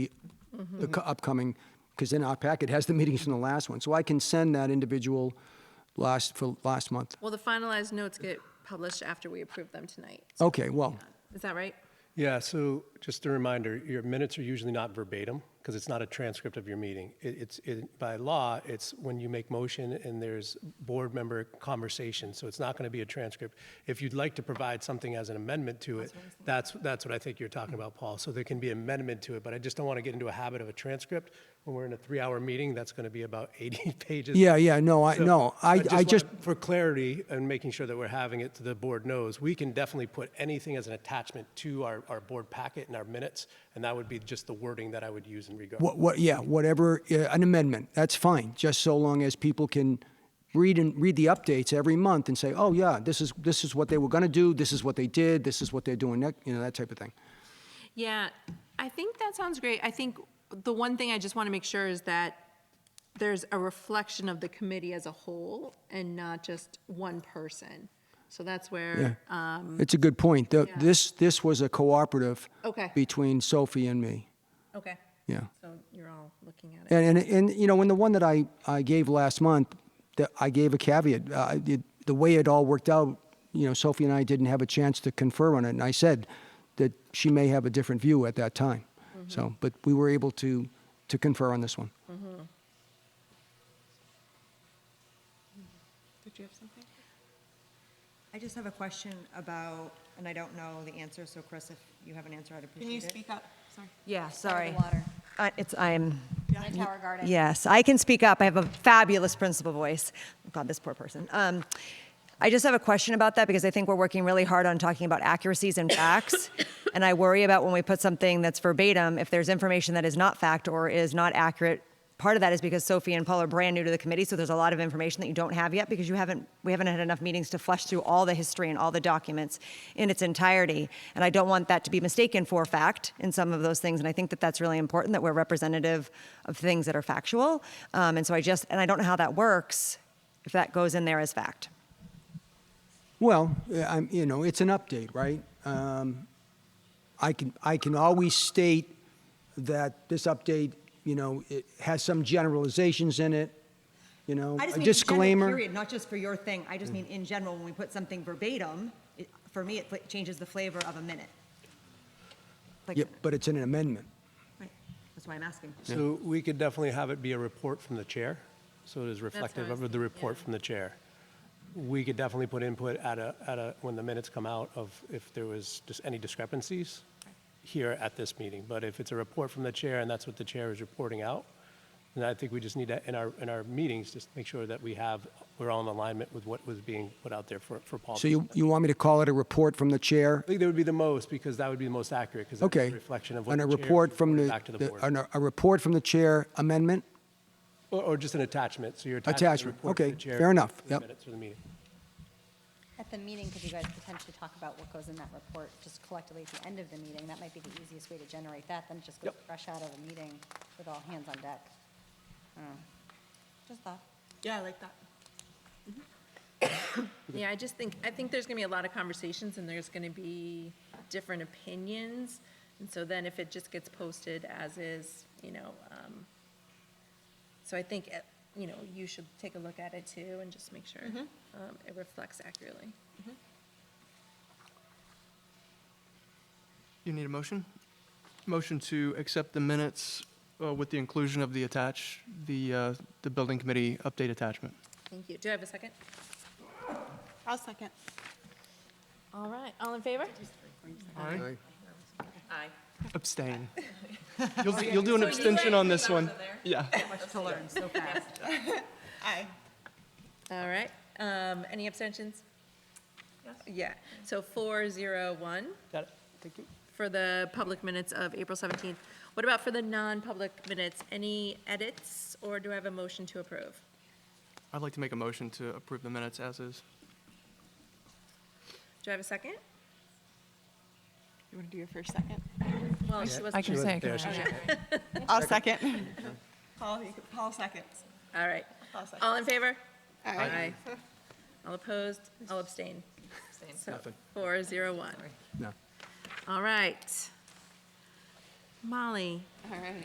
the co- upcoming, because in our packet has the meetings from the last one. So I can send that individual last, for last month. Well, the finalized notes get published after we approve them tonight. Okay, well, Is that right? Yeah, so just a reminder, your minutes are usually not verbatim because it's not a transcript of your meeting. It, it's it, by law, it's when you make motion and there's board member conversation, so it's not going to be a transcript. If you'd like to provide something as an amendment to it, that's that's what I think you're talking about, Paul. So there can be amendment to it, but I just don't want to get into a habit of a transcript when we're in a three-hour meeting. That's going to be about 80 pages. yeah, yeah, no, I, So, no, I, I wanna- just, For clarity and making sure that we're having it, so the board knows, we can definitely put anything as an attachment to our, our board packet and our minutes, and that would be just the wording that I would use in regard. what, what, yeah, whatever, uh, an amendment, that's fine, just so long as people can read and, read the updates every month and say, oh, yeah, this is, this is what they were gonna do, this is what they did, this is what they're doing next, you know, that type of thing. Yeah, I think that sounds great. I think the one thing I just want to make sure is that there's a reflection of the committee as a whole and not just one person. So that's where, um, It's a good point. The- Yeah. This, this was a cooperative Okay. between Sophie and me, okay, yeah. so you're all looking at it. And, and, and, you know, in the one that I, I gave last month, that I gave a caveat. Uh, it, the way it all worked out, you know, Sophie and I didn't have a chance to confer on it, and I said that she may have a different view at that time. So, but we were able to, to confer on this one. Did you have something? I just have a question about, and I don't know the answer, so Chris, if you have an answer, I'd appreciate it. Can you speak up? Sorry. Yeah, the sorry. water. Uh, It's, I'm, High Tower Garden. yes, I can speak up. I have a fabulous principal voice. God, this poor person. Um, I just have a question about that because I think we're working really hard on talking about accuracies and facts. And I worry about when we put something that's verbatim, if there's information that is not fact or is not accurate. Part of that is because Sophie and Paul are brand new to the committee, so there's a lot of information that you don't have yet because you haven't, we haven't had enough meetings to flesh through all the history and all the documents in its entirety. And I don't want that to be mistaken for fact in some of those things. And I think that that's really important that we're representative of things that are factual. Um, and so I just, and I don't know how that works if that goes in there as fact. Well, yeah, I'm, you know, it's an update, right? Um, I can, I can always state that this update, you know, it has some generalizations in it, you know, a disclaimer. period, not just for your thing. I just mean in general, when we put something verbatim, it, for me, it fl- changes the flavor of a minute. Like, Yeah, but it's in an amendment. right. That's why I'm asking. So we could definitely have it be a report from the chair, so it is reflective was of the report from the chair. We could definitely put input at a, at a, when the minutes come out of if there was just any discrepancies here at this meeting. But if it's a report from the chair and that's what the chair is reporting out, then I think we just need to, in our, in our meetings, just make sure that we have, we're all in alignment with what was being put out there for, for Paul. So you, you want me to call it a report from the chair? I think that would be the most, because that would be the most accurate, because that's Okay. a reflection of what On the a chair report from reported the, back to the the- board. on a, a report from the chair amendment? Or, or just an attachment, so your Attachment, attachment report to okay, the chair. fair enough, for the yep. minutes of the meeting. At the meeting, could you guys potentially talk about what goes in that report, just collectively at the end of the meeting? That might be the easiest way to generate that, then it just goes Yep. fresh out of a meeting with all hands on deck. I don't know. Just thought. Yeah, I like that. Yeah, I just think, I think there's gonna be a lot of conversations and there's gonna be different opinions. And so then if it just gets posted as is, you know, um, so I think, eh, you know, you should take a look at it too and just make sure, um, it reflects accurately. You need a motion? Motion to accept the minutes uh, with the inclusion of the attach, the, uh, the building committee update attachment. Thank you. Do I have a second? I'll second. All right, all in favor? Aye. Aye. Abstain. You'll, do- you'll do an abstention on this one. Yeah. Aye. All right, um, any abstentions? Yeah, so four, zero, one. Got it, thank you. for the public minutes of April 17th. What about for the non-public minutes? Any edits, or do I have a motion to approve? I'd like to make a motion to approve the minutes as is. Do I have a second? You want to do your first second? Well, she wasn't. She wasn't there, she- I'll second. Paul, you can- Paul seconds. All right. I'll second. All in favor? Aye. All opposed? All abstain? So, Nothing. Four, zero, one. No. All right. Molly, All right.